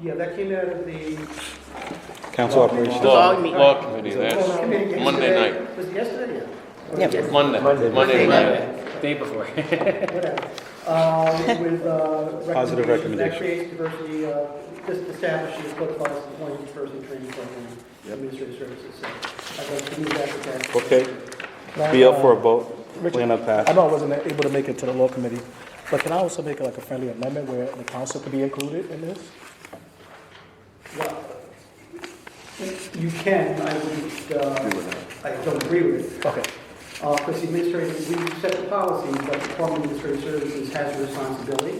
Yeah, that came out of the. Council operations. Law, Dog meat. law committee, that's Well, no, committee yesterday. Monday night, Was it yesterday? Yeah. Yeah. Yesterday, Monday, Monday. Monday night. Day before. Whatever. Uh, With, uh. recommendations That Positive recommendation. creates diversity, uh, just establishing a code policy, employee diversity training program, administrative services. So I'd like to move that to that. Okay, be up for a vote. We're gonna I pass. know I wasn't able to make it to the law committee, but can I also make like a friendly amendment where the council could be included in this? Well, You can, I wouldn't, uh, I don't agree with it. Okay, Uh, because the administrative, we set the policy, but the Department of Administrative Services has a responsibility,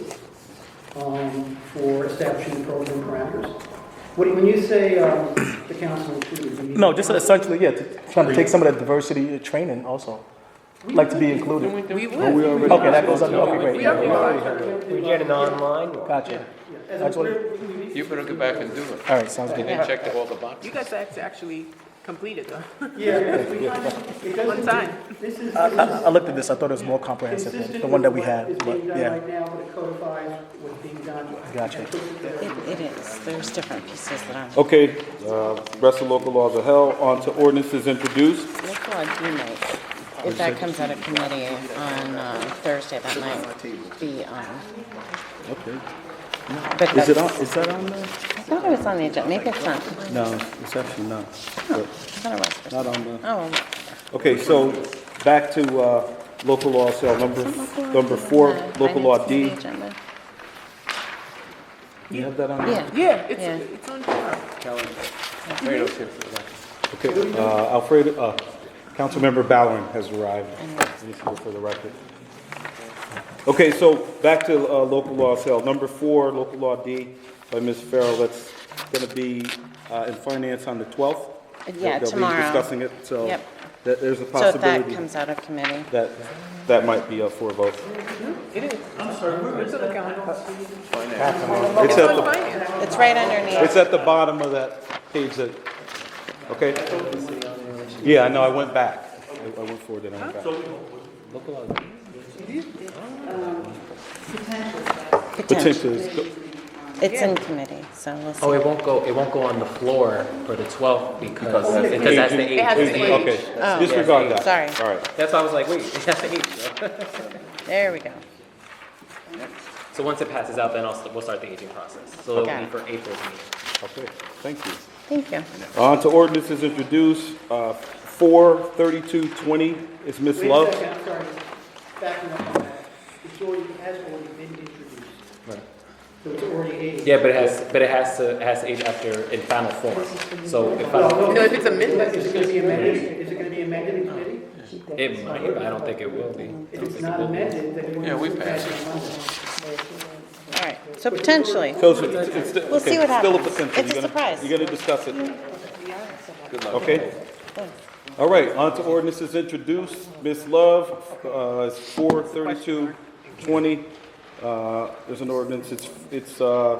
um, for establishing the program parameters. What, when you say, um, the council included, you mean? no, just essentially, yeah, to- trying to take some of that diversity training also, like to be included. We would. Okay, that goes up, okay, great, We already are. We get an online one. gotcha. Yeah, As a, we're- we need- You better go back and do it. All right, sounds You good. didn't check all the You boxes. guys act- actually completed though. Yeah, because we kind of, it One doesn't, time. this is. I, this I is- I looked at this, I thought it was more comprehensive, than Uh, the one that we had, Consistent but, with what is being done yeah. right now, but it codifies what's being done. Gotcha. It puts it there. It, it is, there's different pieces that I'm, Okay, uh, rest of local laws are held. On to ordinances introduced. local law do know, if that comes out of committee on, um, Thursday, that might be, um. Okay. Is it on, is that on there? I thought it was on the agenda, maybe it's not, No, it's actually not. I thought it was. for- Not on the. Oh, Okay, so back to uh, local law cell number, number four, local law D. Finance Committee agenda. You have that on? there? Yeah. Yeah, Yeah. it's, it's on tomorrow. Alfredo's here for that. Okay, uh, Alfredo, uh, Councilmember Bowering has arrived. He needs to go For the record. Okay, so back to uh, local law cell number four, local law D by Ms. Farrell. That's going to be uh, in finance on the 12th. Uh, Yeah, They'll be tomorrow. discussing it, so Yep. that- there's a So if that possibility comes out of committee, that that might be up for a vote. It is. I'm sorry, It's on the calendar. It's It's at on the finance. it's right underneath. It's at the bottom of that page that, okay? Yeah, I know, I went back. I I went forward and I went back. Potential. Potentially, it's go- It's in committee, so we'll see. Oh, it won't go, it won't go on the floor for the 12th because, because that's the It has to 8th. be- age. okay, disregard that. Sorry. All right. That's why I was like, wait, that's the 8th. There we go. So once it passes out, then I'll, st- we'll start the aging process. So it'll Got be it. for April's meeting. Okay, thank you. Thank you. On Uh, to ordinances introduced, uh, four thirty-two twenty is Ms. Wait a Love. second, I'm sorry, backing up on that, it's already, it has already been introduced. Right. So it's already eight. Yeah, but it has, but it has to, it has to age after in final form. So if I, No, No, if it's amended, Is it gonna be amended, is it gonna be amended in committee? it might, but I don't think it will be. If it's not amended, then we. Yeah, we passed All right, so potentially. So it's- it's- it's still- We'll okay, see what it's Still a happens. potential. It's a You're gonna- surprise. You're gonna discuss it. Okay? All right, on to ordinances introduced. Ms. Love, uh, is four thirty-two twenty. Uh, there's an ordinance, it's, it's, uh,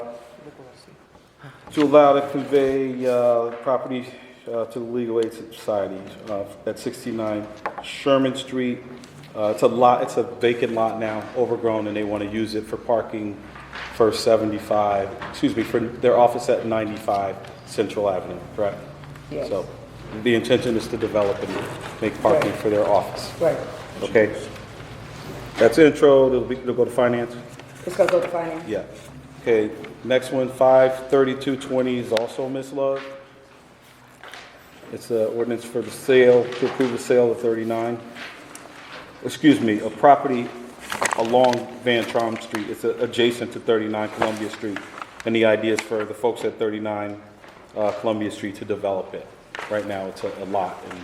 to allow to convey, uh, property, uh, to the Legal Aid Society, uh, at sixty-nine Sherman Street. Uh, it's a lot, it's a vacant lot now, overgrown, and they want to use it for parking for seventy-five, excuse me, for their office at ninety-five Central Avenue, correct? Yes. So, the intention is to develop and make parking for their office. Right, Okay. That's intro, it'll be, it'll go to finance? it's gonna go to finance. Yeah. Okay, next one, five thirty-two twenty is also Ms. Love. It's an ordinance for the sale, to approve the sale of thirty-nine, excuse me, a property along Van Trom Street. It's uh, adjacent to thirty-nine Columbia Street. And the idea is for the folks at thirty-nine, uh, Columbia Street to develop it. Right now, it's a a lot and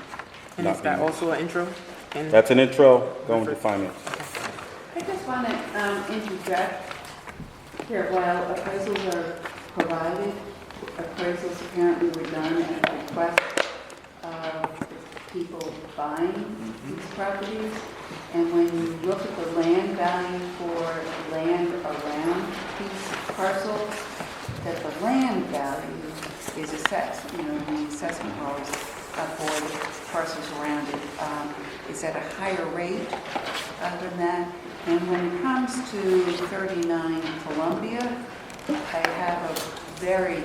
And not is that being. also an intro? And That's an intro, going to finance. I just want to um, interject here, while appraisals are provided, appraisals apparently were done at the request of the people buying these properties, and when you look at the land value for land around these parcels, that the land value is assessed, you know, the assessment rolls uh, for the parcels around it um, is at a higher rate uh, than that. And when it comes to 39 Columbia, I have a very